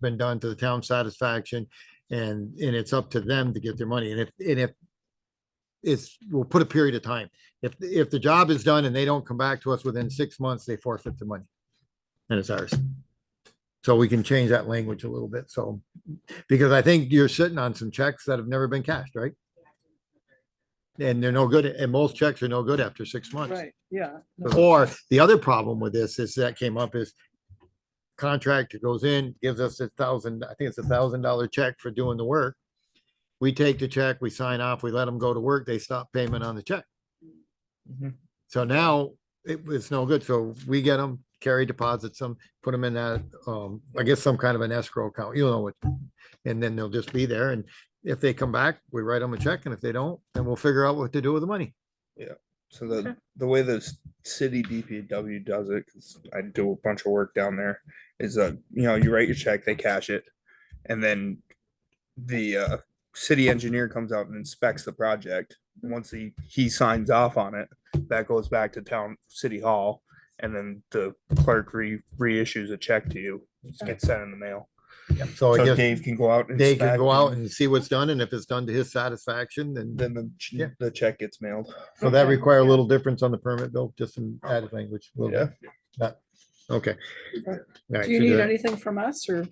been done to the town satisfaction. And, and it's up to them to get their money. And if, and if it's, we'll put a period of time. If, if the job is done and they don't come back to us within six months, they forfeit the money. And it's ours. So we can change that language a little bit. So, because I think you're sitting on some checks that have never been cashed, right? And they're no good, and most checks are no good after six months. Right, yeah. no, Or the other problem with this is that came up is contract that goes in, gives us a thousand, I think it's a thousand dollar check for doing the work. We take the check, we sign off, we let them go to work, they stop payment on the check. Mhm. So now it was no good. So we get them, carry deposits them, put them in that, um, I guess some kind of an escrow account, you know what? And then they'll just be there. And if they come back, we write them a check. And if they don't, then we'll figure out what to do with the money. So the, the way the s- city DPW does it, 'cause I do a bunch of work down there, is uh, you know, you write your check, they cash it. And then the, uh, city engineer comes out and inspects the project. Once he, he signs off on it, that goes back to town, city hall. And then the clerk re, reissues a check to you, It gets sent in the mail. So Oh, I So guess. Dave can go out. and They can inspect go out and see what's done, and if it's done to his satisfaction, then, Then the, ch- Yeah. the check gets mailed. so that Okay. Oh. require a little difference on the permit bill, just some added language. a little bit. Not- Okay. Okay. All right, Do you so need the- anything from us or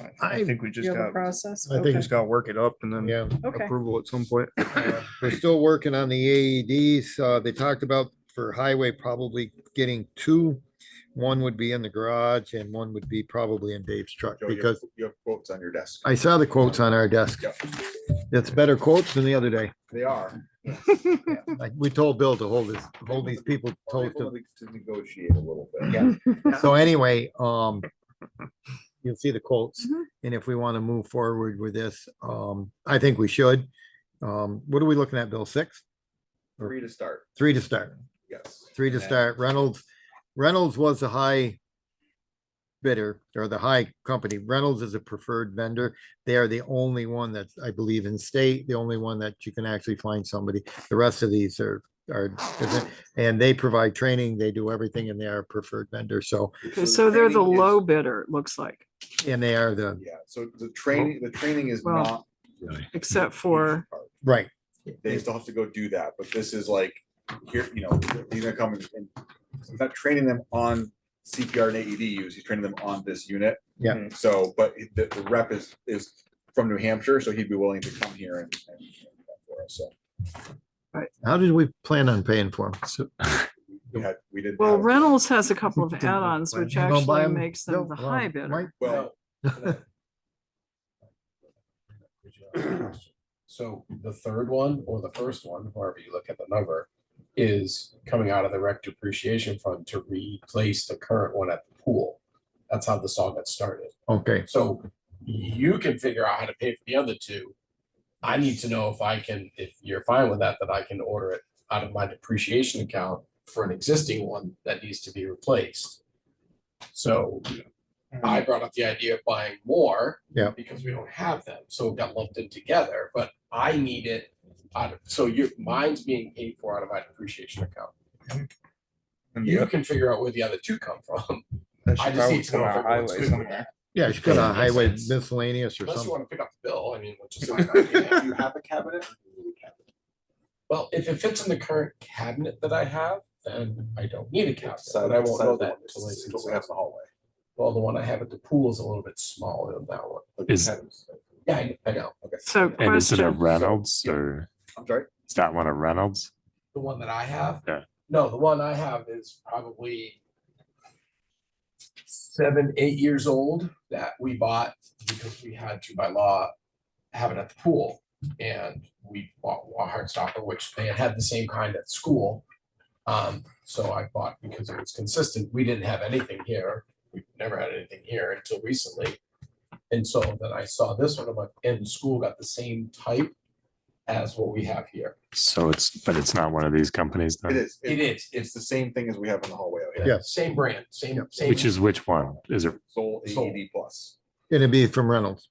I- I- I think we do just you have a got, process? I think we Okay, just gotta work it up and um, then. Yeah, Okay, approval at some point. uh, we're still working on the AEDs, uh, they talked about for highway probably getting two. One would be in the garage and one would be probably in Dave's truck, Joe, you have- because You have quotes on your desk. I saw the quotes on our desk. Yeah. It's better quotes than the other day, They are. like, we told Bill to hold this, hold these people We're toast to able To to negotiate a little bit. Yeah. So anyway, um, you'll see the quotes. And if we want to move forward with this, um, I think we should. Um, what are we looking at, Bill? Six? Three to start, Three to start, yes. three to And that- start. Reynolds, Reynolds was a high bidder or the high company. Reynolds is a preferred vendor. They are the only one that's, I believe, in state, the only one that you can actually find somebody. The rest of these are, are, and they provide training, they do everything and they are a preferred vendor. So, Okay, so they're the training is- low bidder, it looks like, and they are the, Yeah, so the training, the training is Well, not. except for, right. They still have to go do that, but this is like, here, you know, these are coming, and he's not training them on CPR and AED use, he's training them on this unit. Yeah. So, but the, the rep is, is from New Hampshire, so he'd be willing to come here and, and and do that for us, so. How did we plan on paying for them? So We had, we didn't. well, have- Reynolds has a couple of Didn't we add-ons, plan- which You gonna buy actually 'em? makes them Bill? the Well, high bidder. Mike? Well. So the third one or the first one, however you look at the number, is coming out of the rec depreciation fund to replace the current one at the pool. That's how this all got started. Okay, So you can figure out how to pay for the other two. I need to know if I can, if you're fine with that, that I can order it out of my depreciation account for an existing one that needs to be replaced. So Mm-hmm. I brought up the idea of buying more. Yeah. Because we don't have them, so it got lumped in together, but I need it out of, so your, mine's being paid for out of my depreciation account. And You that can figure out where the other two come from. should I just probably need to come know out if of everyone's highway good with somewhere. that. yeah, she's got a Yeah, makes highway sense. miscellaneous or Unless you something. wanna pick up the bill, I mean, which is. Do you have a cabinet? Well, if it fits in the current cabinet that I have, then I don't need a cabinet, Size- but I won't size know of the that one. until I It's see. what we have in the hallway. Well, the one I have at the pool is a little bit smaller than that one. Like the Is- cabinets. Yeah, I- I know. So And is it a question, Reynolds or I'm sorry? is that one a Reynolds? The one that I have? Yeah. No, the one I have is probably seven, eight years old that we bought because we had to by law have it at the pool. And we bought a Heartstopper, which they had the same kind at school. Um, so I bought because it was consistent. We didn't have anything here. We've never had anything here until recently. And so then I saw this one, I'm like, and the school got the same type as what we have here. So it's, but it's not one of these companies It then, is. It is. It's the same thing as we have in the hallway out here. Yeah. Same brand, same, same. which is which one? Is it, Soul Soul. AED E plus. It'd be from Reynolds.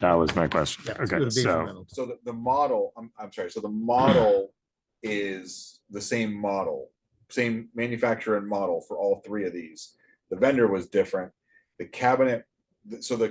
that was my question. Yeah, it'd Okay, be from so, Reynolds. So the, the model, I'm, I'm sorry, so the model is the same model, same manufacturer and model for all three of these. The vendor was different. The cabinet, so the